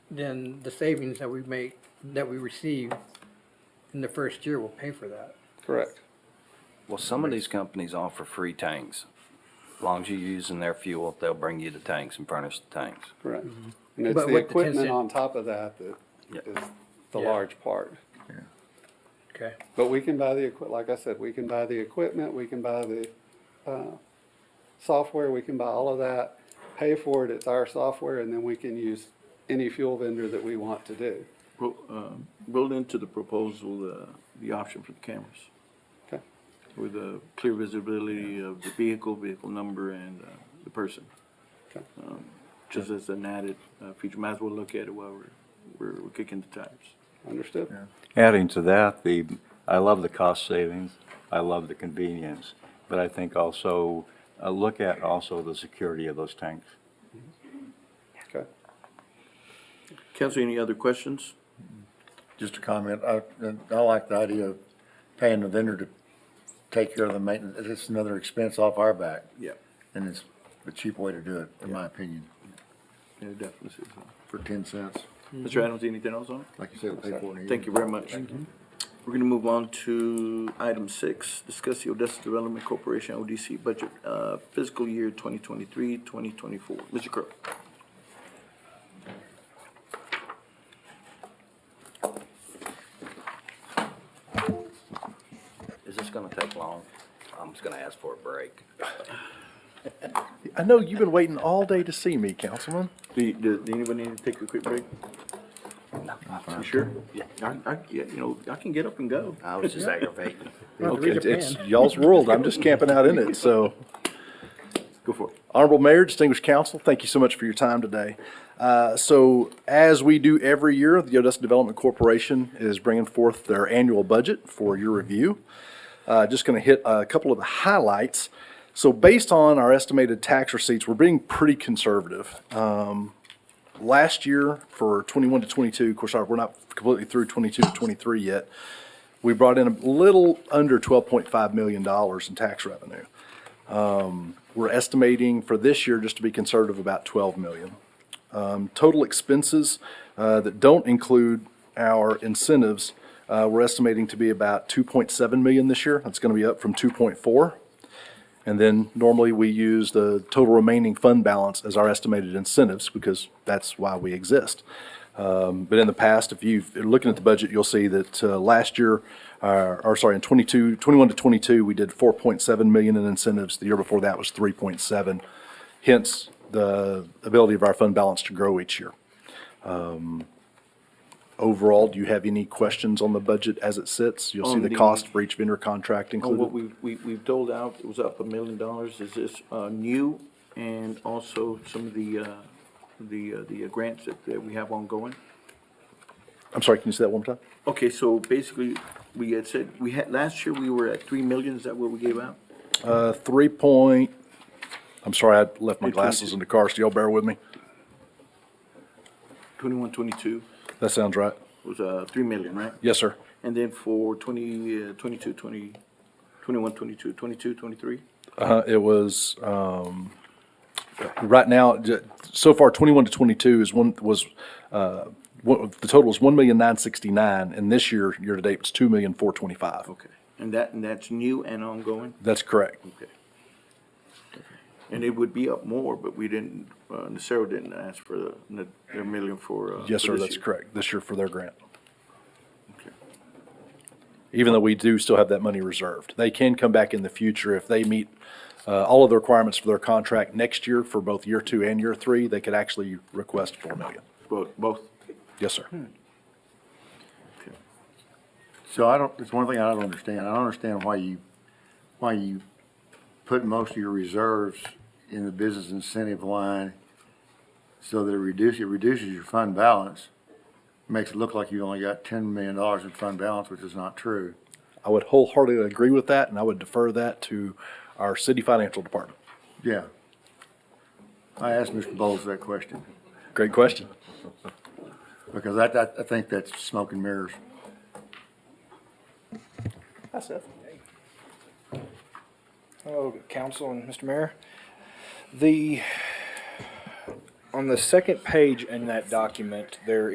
then the savings that we make, that we receive in the first year will pay for that. Correct. Well, some of these companies offer free tanks. As long as you're using their fuel, they'll bring you the tanks and furnish the tanks. Correct. And it's But the with the 10 equipment cent- on top of that that Yeah. is the Yeah. large part. Okay. But we can buy the equi, like I said, we can buy the equipment, we can buy the, uh, software, we can buy all of that, pay for it, it's our software, and then we can use any fuel vendor that we want to do. Pro- uh, Build into the proposal, the, the option for the cameras Okay, with the clear visibility of the vehicle, vehicle number and uh, the person. Okay. Um, Just as an added uh, feature, might as well look at it while we're- we're, we're kicking the tires. understood? Adding to that, the, I love the cost savings, I love the convenience, but I think also, uh, look at also the security of those tanks. Okay. Council, any other questions? Just a comment, I, I like the idea of paying the vendor to take care of the maintenance, it's another expense off our back, Yeah. and it's a cheap way to do it, in my opinion, Yeah, definitely. is. for ten cents. Mm-hmm. Mr. Adams, anything else on it? Like you said, we'll pay for it in a year. Thank you very much. We're gonna move on to item six, discuss the Odessa Development Corporation, ODC budget, uh, fiscal year 2023-2024. Mr. Crowe? Is this gonna take long? I'm just gonna ask for a break. I know you've been waiting all day to see me, Councilman. Do, you- do, do anybody need to take a quick break? You sure? Yeah. I, I, yeah, you know, I can get up and go. I was just aggravating. Okay, It's, it's y'all's world. I'm just camping out in it, so. Go for it. Honorable Mayor, distinguished council, thank you so much for your time today. Uh, So as we do every year, the Odessa Development Corporation is bringing forth their annual budget for your review. Uh, Just going to hit a couple of the highlights. So based on our estimated tax receipts, we're being pretty conservative. Um, Last year for 21 to 22, of course, our- we're not completely through 22 to 23 yet, we brought in a little under $12.5 million in tax revenue. We're estimating for this year, just to be conservative, about 12 million. Um, Total expenses uh, that don't include our incentives, uh, we're estimating to be about 2.7 million this year. That's going to be up from 2.4. And then normally we use the total remaining fund balance as our estimated incentives because that's why we exist. Um, But in the past, if you've, if you're looking at the budget, you'll see that uh, last year, uh, or sorry, in 22, 21 to 22, we did 4.7 million in incentives. The year before that was 3.7. Hence, the ability of our fund balance to grow each year. Um, Overall, do you have any questions on the budget as it sits? You'll see On the the- cost for each vendor contract On included. what we, we, we've doled out, it was up a million dollars. Is this, uh, new? And also some of the, uh, the, uh, the grants that, that we have ongoing? I'm sorry, can you say that one more time? Okay, so basically, we had said, we had, last year we were at three million, is that what we gave out? Uh, three point, I'm sorry, I left my Three point glasses two. in the car, so y'all bear with me. Twenty-one, twenty-two That sounds right. was, uh, three million, right? Yes, sir. And then for twenty, uh, twenty-two, twenty, twenty-one, twenty-two, twenty-two, twenty-three? Uh, it was, um, right now, j- so far twenty-one to twenty-two is one, was, uh, what, the total is one million nine sixty-nine, and this year, year-to-date, it's two million four twenty-five. Okay, and that, and that's new and ongoing? That's correct. Okay. And it would be up more, but we didn't, uh, Nacero didn't ask for the, the- their million for, uh. Yes, for sir, this that's year. correct, this year for their grant. Okay. even though we do still have that money reserved. They can come back in the future if they meet uh, all of the requirements for their contract next year for both year two and year three, they could actually request four million. Both, both, Yes, sir. Hmm. okay. So I don't, it's one thing I don't understand. I don't understand why you, why you put most of your reserves in the business incentive line so that it reduces, it reduces your fund balance, makes it look like you only got ten million dollars in fund balance, which is not true. I would wholeheartedly agree with that, and I would defer that to our city financial department. Yeah. I asked Mr. Bowles that question Great question. because I, I, I think that's smoke and mirrors. Hi, Seth. Hello, council and Mr. Mayor. The on the second page in that document, there